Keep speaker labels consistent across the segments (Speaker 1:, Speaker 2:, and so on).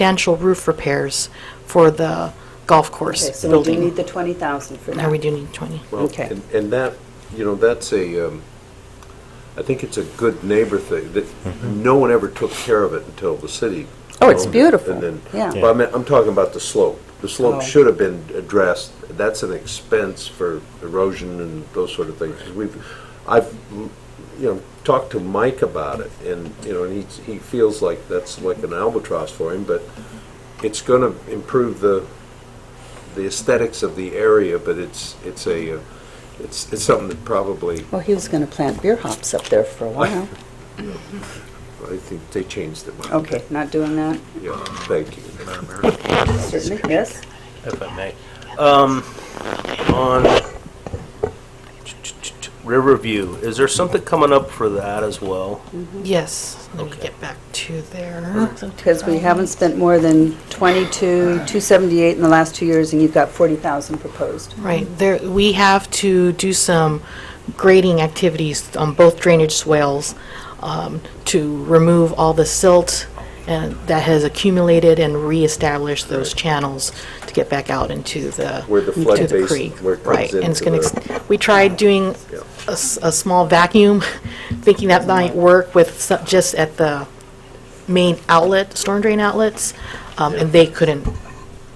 Speaker 1: substantial roof repairs for the golf
Speaker 2: Okay,
Speaker 1: course
Speaker 2: so we do need
Speaker 1: building.
Speaker 2: the 20,000 for that.
Speaker 1: Now we do need 20.
Speaker 3: Well,
Speaker 2: Okay.
Speaker 3: and- And that, you know, that's a, um, I think it's a good neighbor thing, that no one ever took care of it until the city.
Speaker 2: Oh, it's
Speaker 3: owned it,
Speaker 2: beautiful.
Speaker 3: And then,
Speaker 2: Yeah.
Speaker 3: but I mean, I'm talking about the slope. The
Speaker 2: Oh.
Speaker 3: slope should have been addressed. That's an expense for erosion and those sort of things. 'Cause We've, I've, you know, talked to Mike about it, and, you know, and he, he feels like that's like an albatross for him, but it's going to improve the, the aesthetics of the area, but it's, it's a, uh, it's, it's something that probably,
Speaker 2: Well, he was going to plant beer hops up there for a while.
Speaker 3: I think they changed their mind.
Speaker 2: Okay, not doing that,
Speaker 3: Yeah, thank you.
Speaker 4: Madam Mayor,
Speaker 2: certainly, yes?
Speaker 4: if I may. Um, on Riverview, is there something coming up for that as well?
Speaker 1: Yes, let me
Speaker 4: Okay.
Speaker 1: get back to there.
Speaker 2: Because we haven't spent more than 22, 278 in the last two years, and you've got 40,000 proposed.
Speaker 1: Right, there, we have to do some grading activities on both drainage swales um, to remove all the silt and that has accumulated and reestablish those channels to get back out into the,
Speaker 3: Where the
Speaker 1: to
Speaker 3: flood
Speaker 1: the
Speaker 3: basin-
Speaker 1: creek.
Speaker 3: where it comes
Speaker 1: Right, and it's
Speaker 3: into
Speaker 1: gonna,
Speaker 3: the-
Speaker 1: ex- we tried doing a, s- a small vacuum, thinking that might work with, some- just at the main outlet, storm drain outlets, um, and they couldn't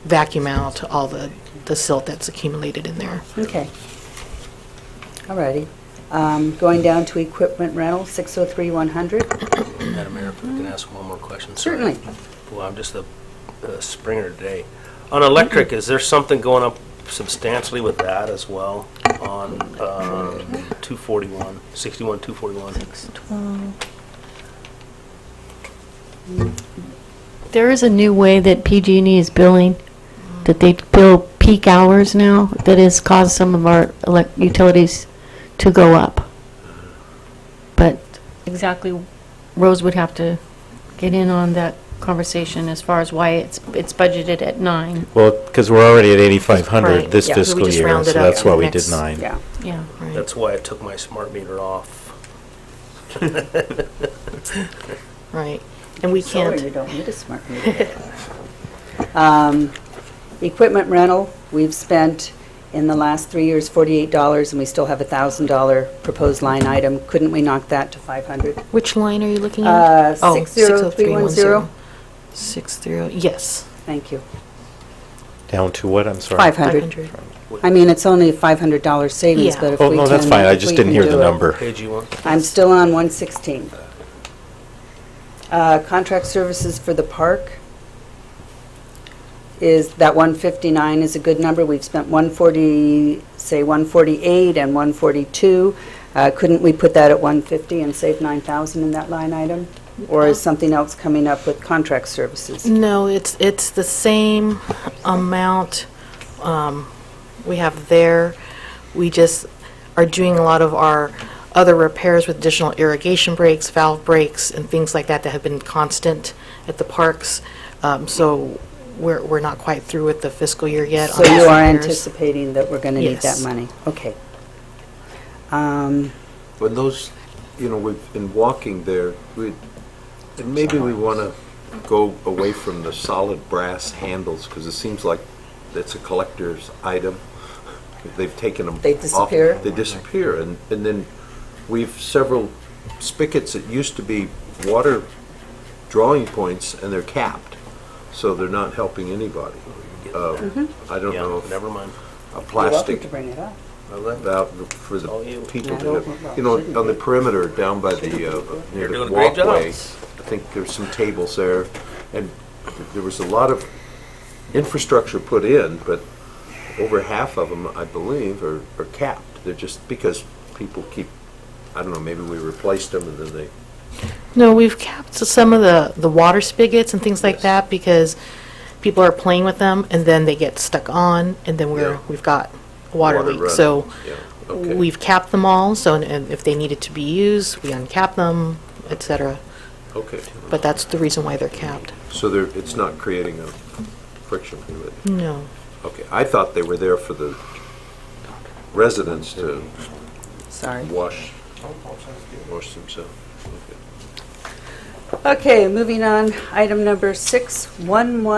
Speaker 1: vacuum out all the, the silt that's accumulated in there.
Speaker 2: Okay. All righty. Um, Going down to equipment rental, 603-100.
Speaker 4: Madam Mayor, if I can ask one more question. sorry.
Speaker 2: Certainly.
Speaker 4: Well, I'm just a a Springer today. On electric, is there something going up substantially with that as well on um, 241, 61, 241?
Speaker 5: There is a new way that PG&E E is billing, that they bill peak hours now, that has caused some of our elec- utilities to go up. But exactly, Rose would have to get in on that conversation as far as why it's, it's budgeted at nine,
Speaker 6: Well, because we're already at
Speaker 1: Right,
Speaker 6: 8,500 this
Speaker 1: yeah. So we
Speaker 6: fiscal
Speaker 1: just
Speaker 6: year,
Speaker 1: rounded
Speaker 6: so
Speaker 1: up
Speaker 6: that's
Speaker 1: to
Speaker 6: why
Speaker 1: the
Speaker 6: we
Speaker 1: next-
Speaker 6: did nine.
Speaker 2: Yeah.
Speaker 5: yeah.
Speaker 1: Right.
Speaker 4: That's why I took my smart meter off.
Speaker 1: Right, and we
Speaker 2: Solar, you
Speaker 1: can't,
Speaker 2: don't need a smart meter. Um, Equipment rental, we've spent in the last three years $48, and we still have a $1,000 proposed line item. Couldn't we knock that to 500?
Speaker 1: which line are you looking
Speaker 2: Uh,
Speaker 1: at? Oh,
Speaker 2: 60310.
Speaker 1: 603, yes,
Speaker 2: Thank you.
Speaker 6: Down to what, I'm sorry?
Speaker 2: 500.
Speaker 1: 500.
Speaker 2: I mean, it's only a $500 savings,
Speaker 1: Yeah.
Speaker 2: but if we
Speaker 6: Oh,
Speaker 2: can...
Speaker 6: no, that's fine, I
Speaker 2: if
Speaker 6: just
Speaker 2: we
Speaker 6: didn't
Speaker 2: can
Speaker 6: hear
Speaker 2: do
Speaker 6: the
Speaker 2: it.
Speaker 6: number.
Speaker 4: Page you want?
Speaker 2: I'm still on 116. Uh, Contract services for the park is, that 159 is a good number. We've spent 140, say 148 and 142. Uh, Couldn't we put that at 150 and save 9,000 in that line item? Or is something else coming up with contract services?
Speaker 1: No, it's, it's the same amount um, we have there. We just are doing a lot of our other repairs with additional irrigation breaks, valve breaks, and things like that that have been constant at the parks. Um, So we're, we're not quite through with the fiscal year yet. on
Speaker 2: So you
Speaker 1: those
Speaker 2: are
Speaker 1: repairs.
Speaker 2: anticipating that we're going to need that
Speaker 1: Yes.
Speaker 2: money? Okay. Um,
Speaker 3: When those, you know, we've, in walking there, we, and maybe we want to go away from the solid brass handles, because it seems like it's a collector's item. They've taken them.
Speaker 2: They
Speaker 3: off-
Speaker 2: disappear?
Speaker 3: They disappear, and, and then we've several spigots that used to be water drawing points, and they're capped, so they're not helping anybody. Uh, I don't
Speaker 4: Yeah,
Speaker 3: know, if
Speaker 4: never
Speaker 3: a
Speaker 4: mind.
Speaker 2: You're welcome
Speaker 3: plastic
Speaker 2: to bring it up.
Speaker 4: I left.
Speaker 3: out for the
Speaker 4: Oh, you-
Speaker 3: people
Speaker 2: I
Speaker 3: to,
Speaker 2: don't-
Speaker 3: have- you know, on the perimeter down by the, uh, near
Speaker 4: You're doing
Speaker 3: the
Speaker 4: a great job.
Speaker 3: walkway. I think there's some tables there, and there was a lot of infrastructure put in, but over half of them, I believe, are, are capped. They're just because people keep, I don't know, maybe we replaced them and then they
Speaker 1: No, we've capped some of the, the water spigots and things like
Speaker 3: Yes.
Speaker 1: that because people are playing with them and then they get stuck on and then we're,
Speaker 3: Yeah.
Speaker 1: we've got a water
Speaker 3: Water
Speaker 1: leak.
Speaker 3: running.
Speaker 1: So
Speaker 3: Yeah, okay.
Speaker 1: we've capped them all, so and- and if they needed to be used, we uncap them, et cetera.
Speaker 3: Okay,
Speaker 1: But that's the reason why they're capped.
Speaker 3: so there, it's not creating a friction with it.
Speaker 1: No.
Speaker 3: Okay, I thought they were there for the residents to
Speaker 2: Sorry.
Speaker 3: wash, wash themselves. Okay.
Speaker 2: Okay, moving on, item number 611.